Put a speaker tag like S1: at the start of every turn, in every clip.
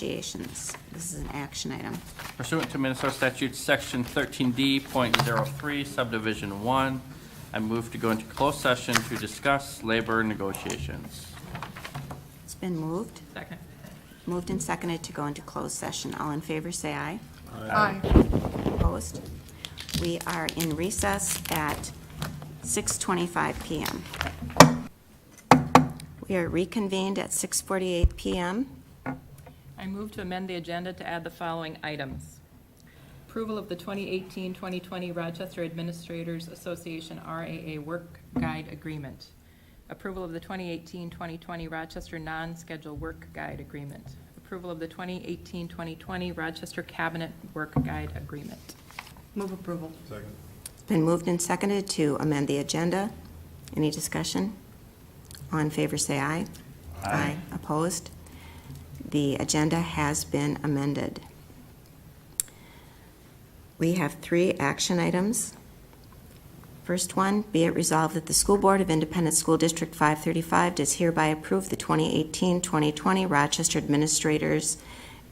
S1: negotiations. This is an action item.
S2: Pursuant to Minnesota Statute Section 13D.03 Subdivision 1, I move to go into closed session to discuss labor negotiations.
S1: It's been moved. Second. Moved and seconded to go into closed session. All in favor, say aye. Opposed? We are in recess at 6:25 PM. We are reconvened at 6:48 PM.
S3: I move to amend the agenda to add the following items. Approval of the 2018-2020 Rochester Administrators Association RAA Work Guide Agreement. Approval of the 2018-2020 Rochester Non-Schedule Work Guide Agreement. Approval of the 2018-2020 Rochester Cabinet Work Guide Agreement.
S4: Move approval.
S1: It's been moved and seconded to amend the agenda. Any discussion? All in favor, say aye. Aye. Opposed? The agenda has been amended. We have three action items. First one, be it resolved that the School Board of Independent School District 535 does hereby approve the 2018-2020 Rochester Administrators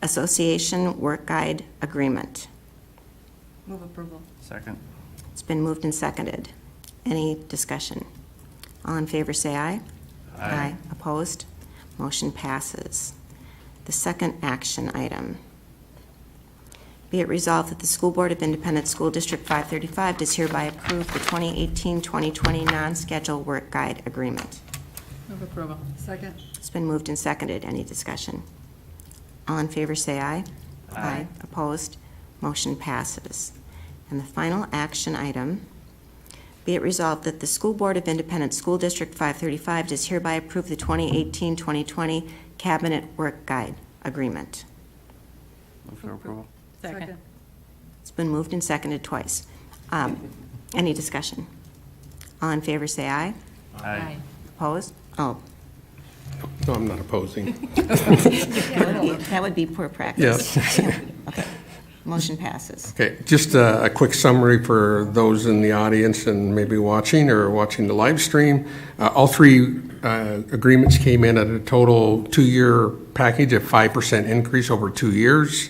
S1: Association Work Guide Agreement.
S4: Move approval.
S2: Second.
S1: It's been moved and seconded. Any discussion? All in favor, say aye. Opposed? Motion passes. The second action item. Be it resolved that the School Board of Independent School District 535 does hereby approve the 2018-2020 non-schedule work guide agreement.
S3: Move approval.
S4: Second.
S1: It's been moved and seconded. Any discussion? All in favor, say aye. Aye. Opposed? Motion passes. And the final action item, be it resolved that the School Board of Independent School District 535 does hereby approve the 2018-2020 Cabinet Work Guide Agreement.
S2: Move for approval.
S3: Second.
S1: It's been moved and seconded twice. Um, Any discussion? All in favor, say aye.
S2: Aye.
S1: Opposed? Oh,
S5: No, I'm not opposing.
S1: that would be poor practice. Yes. Okay. Motion passes.
S5: Okay, just a, a quick summary for those in the audience and maybe watching or watching the live stream. Uh, all three, uh, agreements came in at a total two-year package of five percent increase over two years.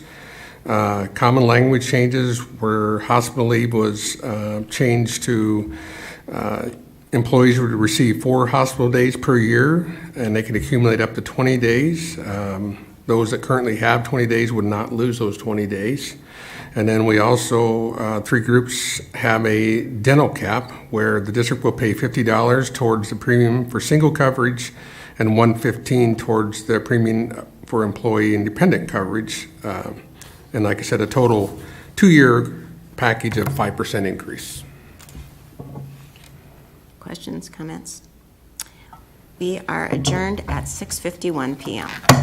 S5: Uh, common language changes where hospital leave was, uh, changed to, uh, employees would receive four hospital days per year, and they could accumulate up to twenty days. Um, those that currently have 20 days would not lose those 20 days. And then we also, uh, three groups have a dental cap where the district will pay $50 towards the premium for single coverage and 115 towards the premium for employee independent coverage. Uh, And like I said, a total two-year package of 5% increase.
S1: Questions, comments? We are adjourned at 6:51 PM.